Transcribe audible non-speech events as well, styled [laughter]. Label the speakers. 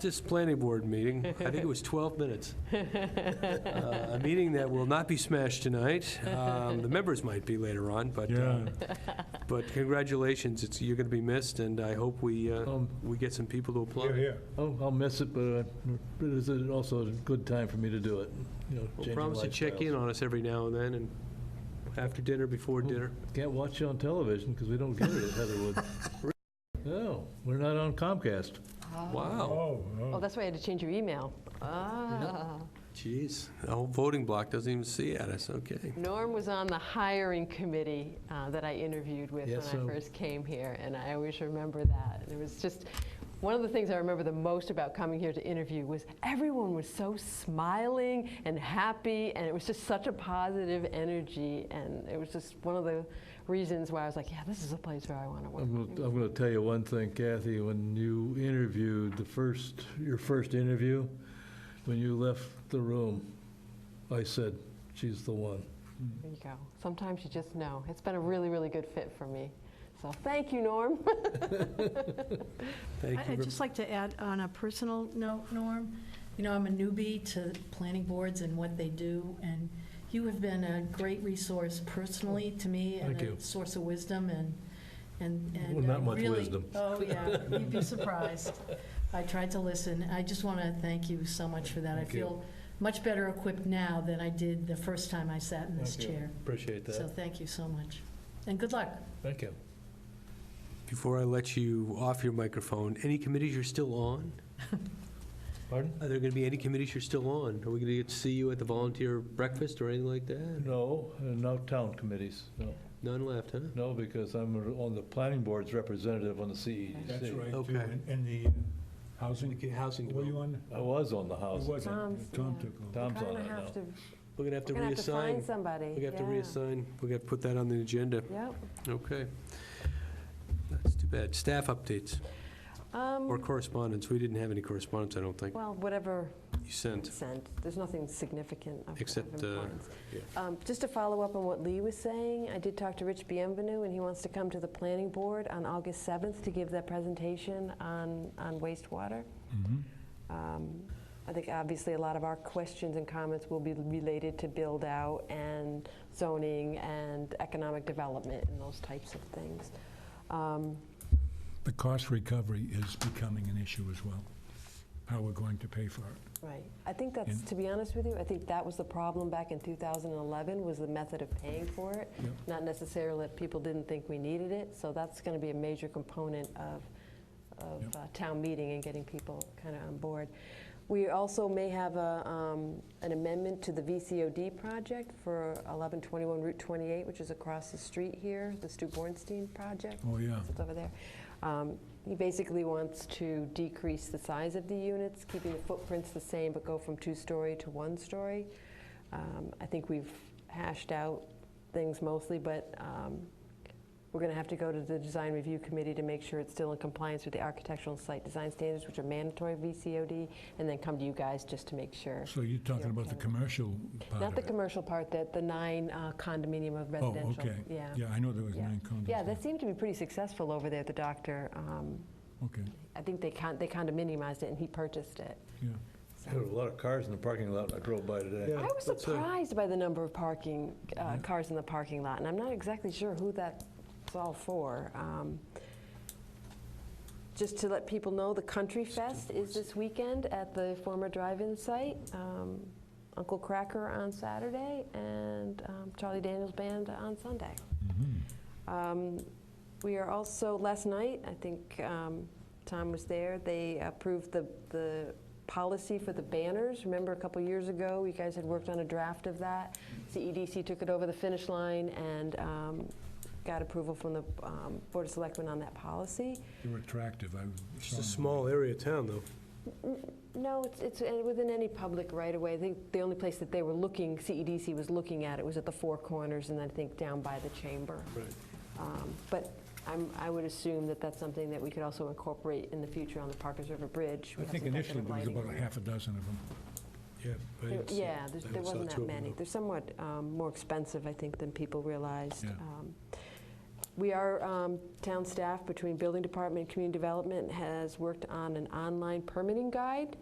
Speaker 1: This planning board meeting, I think it was 12
Speaker 2: [laughs]
Speaker 1: minutes. Uh, A meeting that will not be smashed tonight. Um, The members might be later on, but, uh, but congratulations, it's, you're going to be missed, and I hope we, uh,
Speaker 3: Um,
Speaker 1: we get some people to
Speaker 4: Oh. Yeah,
Speaker 1: apply.
Speaker 4: yeah.
Speaker 3: I'll, I'll miss it, but uh, but it is also a good time for me to do it, you know,
Speaker 1: Well,
Speaker 3: changing
Speaker 1: promise to check in
Speaker 3: lifestyles.
Speaker 1: on us every now and then, and after dinner, before dinner.
Speaker 3: Can't watch it on television, because we don't get it at
Speaker 1: [laughs]
Speaker 3: Heatherwood. No, we're not on Comcast.
Speaker 1: Wow,
Speaker 4: Oh,
Speaker 5: Oh,
Speaker 4: oh.
Speaker 5: that's why I had to change your email. Ah,
Speaker 1: jeez. The whole voting block doesn't even see at us, okay.
Speaker 5: Norm was on the hiring committee uh, that I interviewed with
Speaker 3: Yes,
Speaker 5: when I
Speaker 3: so-
Speaker 5: first came here, and I always remember that. And it was just one of the things I remember the most about coming here to interview was everyone was so smiling and happy, and it was just such a positive energy. And it was just one of the reasons why I was like, yeah, this is a place where I want to work.
Speaker 3: I'm gonna, I'm gonna tell you one thing, Kathy, when you interviewed the first, your first interview, when you left the room, I said, she's the one.
Speaker 5: There you go. Sometimes you just know. It's been a really, really good fit for me. So thank you, [laughs] Norm.
Speaker 1: Thank
Speaker 2: I-
Speaker 1: you.
Speaker 2: I'd
Speaker 1: ver-
Speaker 2: just like to add on a personal note, Norm, you know, I'm a newbie to planning boards and what they do, and you have been a great resource personally to me and
Speaker 3: Thank you.
Speaker 2: a source of wisdom and, and. and
Speaker 3: Well, not
Speaker 2: I
Speaker 3: much
Speaker 2: really-
Speaker 3: wisdom. [laughs]
Speaker 2: Oh, yeah, you'd be surprised. I tried to listen. I just want to thank you so much for that. I
Speaker 3: Thank you.
Speaker 2: feel much better equipped now than I did the first time I sat in this
Speaker 3: Thank you.
Speaker 2: chair.
Speaker 3: Appreciate
Speaker 2: So thank you so much. And good luck.
Speaker 3: Thank you.
Speaker 1: Before I let you off your microphone, any committees you're still on?
Speaker 3: Pardon?
Speaker 1: Are there going to be any committees you're still on? Are we going to get to see you at the volunteer breakfast or anything like that?
Speaker 3: No, uh, no town committees, no.
Speaker 1: None left, huh?
Speaker 3: No, because I'm on the planning board's representative on the E CEDC.
Speaker 4: That's right, too.
Speaker 1: Okay.
Speaker 4: And- And the uh, housing,
Speaker 1: Okay, Housing
Speaker 4: were you
Speaker 1: Development.
Speaker 4: on?
Speaker 3: I was on the
Speaker 4: Who
Speaker 3: housing.
Speaker 4: was it?
Speaker 5: Tom's,
Speaker 4: Tom
Speaker 5: yeah.
Speaker 4: took over.
Speaker 3: Tom's on
Speaker 5: We're
Speaker 3: it
Speaker 5: gonna
Speaker 3: now.
Speaker 5: have to,
Speaker 1: We're going to have to
Speaker 5: we're gonna have to
Speaker 1: reassign.
Speaker 5: find somebody.
Speaker 1: We're going to have to
Speaker 5: Yeah.
Speaker 1: reassign. We're going to put that on the agenda.
Speaker 5: Yep.
Speaker 1: Okay. That's too bad. Staff updates
Speaker 5: Um,
Speaker 1: or correspondence? We didn't have any correspondence, I don't think,
Speaker 5: Well, whatever
Speaker 1: you sent.
Speaker 5: sent, there's nothing significant of-
Speaker 1: Except,
Speaker 5: of
Speaker 1: uh,
Speaker 5: importance.
Speaker 1: yeah.
Speaker 5: Um, Just to follow up on what Lee was saying, I did talk to Rich Bienvenu, and he wants to come to the planning board on August 7th to give that presentation on on wastewater.
Speaker 4: Mm-hmm.
Speaker 5: Um, I think obviously a lot of our questions and comments will be related to build-out and zoning and economic development and those types of things. Um,
Speaker 4: The cost recovery is becoming an issue as well, how we're going to pay for it.
Speaker 5: Right. I think that's,
Speaker 4: And-
Speaker 5: to be honest with you, I think that was the problem back in 2011, was the method of paying for it.
Speaker 4: Yep.
Speaker 5: Not necessarily that people didn't think we needed it, so that's going to be a major component of, of
Speaker 4: Yep.
Speaker 5: uh, town meeting and getting people kind of on board. We also may have a, um, an amendment to the VCOD project for 1121 Route 28, which is across the street here, the Stu Bornstein project
Speaker 4: Oh, yeah.
Speaker 5: it's over there. Um, He basically wants to decrease the size of the units, keeping the footprints the same, but go from two-story to one-story. Um, I think we've hashed out things mostly, but um, we're going to have to go to the design review committee to make sure it's still in compliance with the architectural and site design standards, which are mandatory VCOD, and then come to you guys just to make sure.
Speaker 4: So you're talking about the commercial part
Speaker 5: Not
Speaker 4: of
Speaker 5: the
Speaker 4: it?
Speaker 5: commercial part, that the nine uh, condominium of
Speaker 4: Oh,
Speaker 5: residential.
Speaker 4: okay.
Speaker 5: Yeah.
Speaker 4: Yeah, I know there was
Speaker 5: Yeah.
Speaker 4: nine condos.
Speaker 5: Yeah, that seemed to be pretty successful over there, the doctor. um,
Speaker 4: Okay,
Speaker 5: I think they con- they condominiumized it and he purchased it.
Speaker 4: yeah.
Speaker 3: There were a lot of cars in the parking lot, I drove by today.
Speaker 5: I was surprised by the number of parking, uh, cars in the parking lot, and I'm not exactly sure who that's all for. Um, Just to let people know, the Country Fest is this weekend at the former drive-in site. Um, Uncle Cracker on Saturday and um, Charlie Daniels Band on Sunday.
Speaker 4: Mhm.
Speaker 5: Um, We are also, last night, I think um, Tom was there, they approved the, the policy for the banners. Remember a couple years ago, you guys had worked on a draft of that? CEDC took it over the finish line and um, got approval from the um, Board of Selectmen on that policy.
Speaker 4: They were attractive, I saw
Speaker 1: It's a
Speaker 4: them.
Speaker 1: small area of town, though.
Speaker 5: No, it's, it's uh, within any public right of way. I think the only place that they were looking, CEDC was looking at it, was at the Four Corners and I think down by the chamber.
Speaker 1: Right.
Speaker 5: Um, But I'm, I would assume that that's something that we could also incorporate in the future on the Parkers River Bridge. We
Speaker 4: I
Speaker 5: have
Speaker 4: think
Speaker 5: some type
Speaker 4: initially
Speaker 5: of
Speaker 4: there was
Speaker 5: lighting.
Speaker 4: about a half a dozen of them.
Speaker 1: Yeah. I
Speaker 5: There-
Speaker 1: didn't see-
Speaker 5: Yeah, there's-
Speaker 1: I
Speaker 5: there
Speaker 1: saw
Speaker 5: wasn't
Speaker 1: two
Speaker 5: that
Speaker 1: of them,
Speaker 5: many. They're somewhat um, more expensive, I think, than people realized.
Speaker 4: Yeah.
Speaker 5: Um, We are, um, town staff between building department and community development has worked on an online permitting guide